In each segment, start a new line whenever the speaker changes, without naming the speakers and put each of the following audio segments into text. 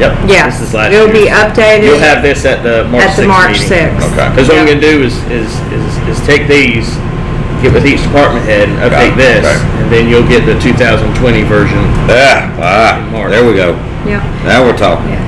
Yep.
Yes,
This is last
it'll be
year's.
updated.
You'll have this at the March
At the
6th
March
meeting.
6th.
Okay.
Because what I'm
Yep.
gonna do is, is, is, is take these, get with each department head and
Got it.
update this,
Okay.
and then you'll get the 2020 version.
Yeah, ah, there we go.
Yeah,
Now we're talking.
yeah.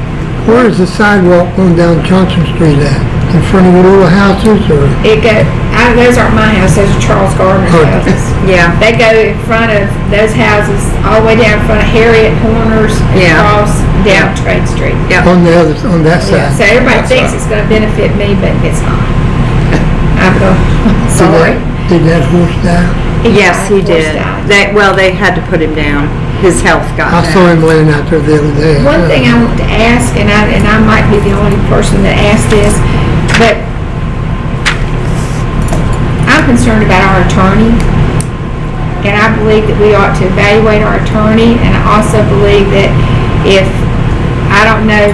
Where is the sidewalk going down Johnson Street at? In front of your little houses or?
It go, I, those aren't my houses, those are Charles Gardner's
Good.
houses.
Yeah.
They go in front of those houses, all the way down in front of Harriet Horner's, and
Yeah.
across
Yeah.
down Trade Street.
Yeah.
On the other, on that
Yeah, So
side?
everybody
That's
thinks
right.
it's gonna benefit me, but it's not. I'm going,
Did that-
sorry.
Did that horse die?
Yes, he
Of course
did.
not.
They, well, they had to put him down. His health got
I
bad.
saw him laying out there the other day.
One thing I want to ask, and I, and I might be the only person that asked this, but I'm concerned about our attorney. And I believe that we ought to evaluate our attorney, and I also believe that if, I don't know,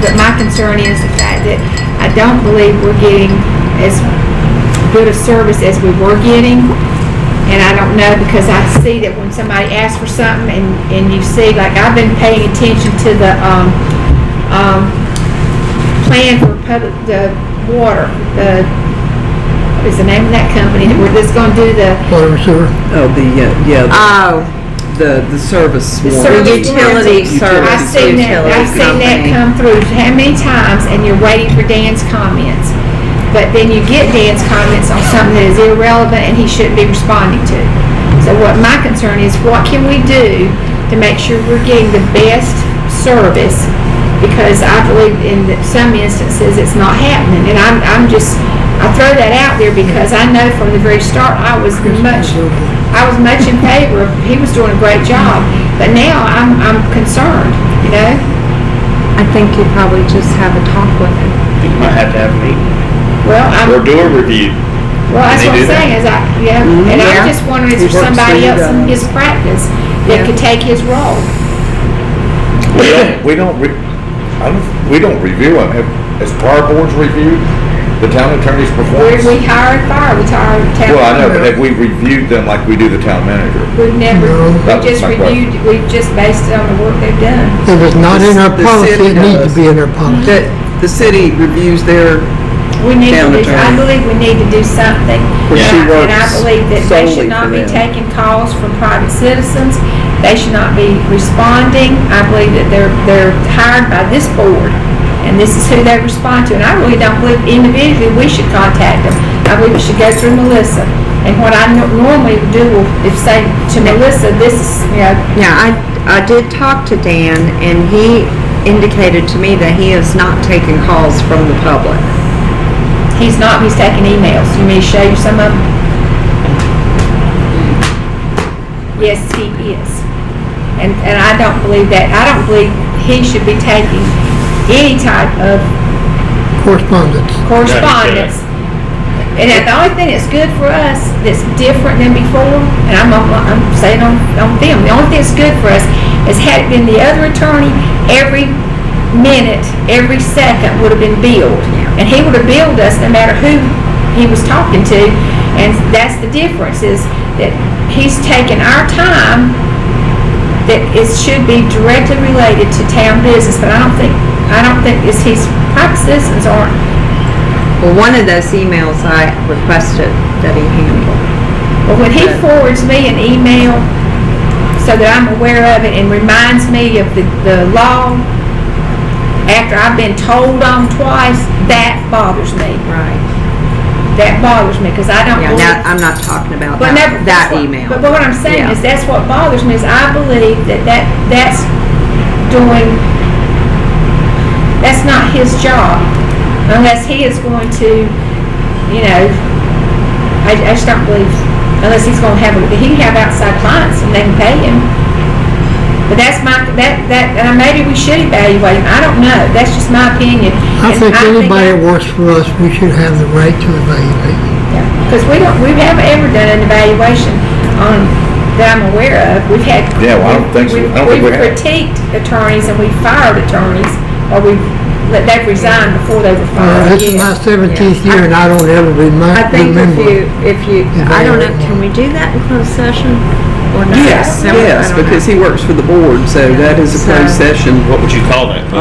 but my concern is the fact that I don't believe we're getting as good a service as we were getting. And I don't know, because I see that when somebody asks for something and, and you see, like, I've been paying attention to the, um, um, plan for public, the water, the, what is the name of that company that we're just gonna do the,
Water and sewer.
Oh, the, uh, yeah,
Oh,
the, the service
the service
warranty.
utility
warranty.
service.
I've seen that,
utility
I've seen that
company.
come through how many times, and you're waiting for Dan's comments. But then you get Dan's comments on something that is irrelevant and he shouldn't be responding to. So what my concern is, what can we do to make sure we're getting the best service? Because I believe in that some instances it's not happening, and I'm, I'm just, I throw that out there because I know from the very start, I was much I was much in favor of, he was doing a great job, but now I'm, I'm concerned, you know?
I think you probably just have a talk with him.
You might have to have a meeting.
Well, I'm,
Or do a review.
well, that's
Can
what
they do
I'm
that?
saying is I, yeah, and
Yeah.
I'm just wondering, is
Mm-hmm. He
there
works
somebody
for you
else in
guys.
his practice
Yeah.
that could take his role?
We don't, we don't, re- I don't, we don't review them. Have, has prior boards reviewed the town attorney's
Where
performance?
we hired fire, we hired town.
Well, I know, but have we reviewed them like we do the town manager?
We've never,
No.
we
That was
just
my question.
reviewed, we've just based it on the work they've done.
If it's not in our
The
policy,
city
it needs
does.
to be in our policy.
That, the city reviews their,
We need
Town
to do, I
attorney.
believe we need to do something.
Well, she
And I- And I
works
believe that they should
solely
not
for
be
them.
taking calls from private citizens. They should not be responding. I believe that they're, they're hired by this board, and this is who they respond to. And I really don't believe individually we should contact them. I believe it should go through Melissa. And what I no- normally do is say to Melissa, this is, you know,
Yeah, I, I did talk to Dan, and he indicated to me that he is not taking calls from the public.
he's not, he's taking emails. You may show you some of them? Yes, he is. And, and I don't believe that, I don't believe he should be taking any type of
Correspondence.
correspondence. And the only thing that's good for us, that's different than before, and I'm, on- I'm saying on, on film, the only thing that's good for us is had it been the other attorney, every minute, every second would have been billed. And he would have billed us no matter who he was talking to, and that's the difference, is that he's taking our time that it should be directly related to town business, but I don't think, I don't think, is his, private citizens aren't
Well, one of those emails I requested that he handle.
Well, when he forwards me an email so that I'm aware of it and reminds me of the, the law after I've been told on twice, that bothers me.
Right.
That bothers me because I don't
Yeah,
believe.
now, I'm not talking about
But never-
that, that
that's what-
email.
But, but what I'm saying
Yeah.
is that's what bothers me is I believe that, that that's doing, that's not his job unless he is going to, you know, I, I just don't believe, unless he's going to have, he can have outside clients and they can pay him. But that's my, that, that, and maybe we should evaluate him. I don't know. That's just my opinion.
I
And
think anybody
I-
that works for us, we should have the right to evaluate.
because we don't, we haven't ever done an evaluation on, that I'm aware of. We've had.
Yeah, well, I don't think so.
we've-
I don't think we
We've
have.
critiqued attorneys and we've fired attorneys, or we've, that they've resigned before they were
Uh,
fired.
This is my seventeenth year and I don't ever remind,
I think if
remember.
you, if you, I don't know,
Evaluate.
can we do that in closed session? Or not?
yes,
No, I
yes,
don't know.
because he works for the board, so that is a closed
So-
session.
What would you call that?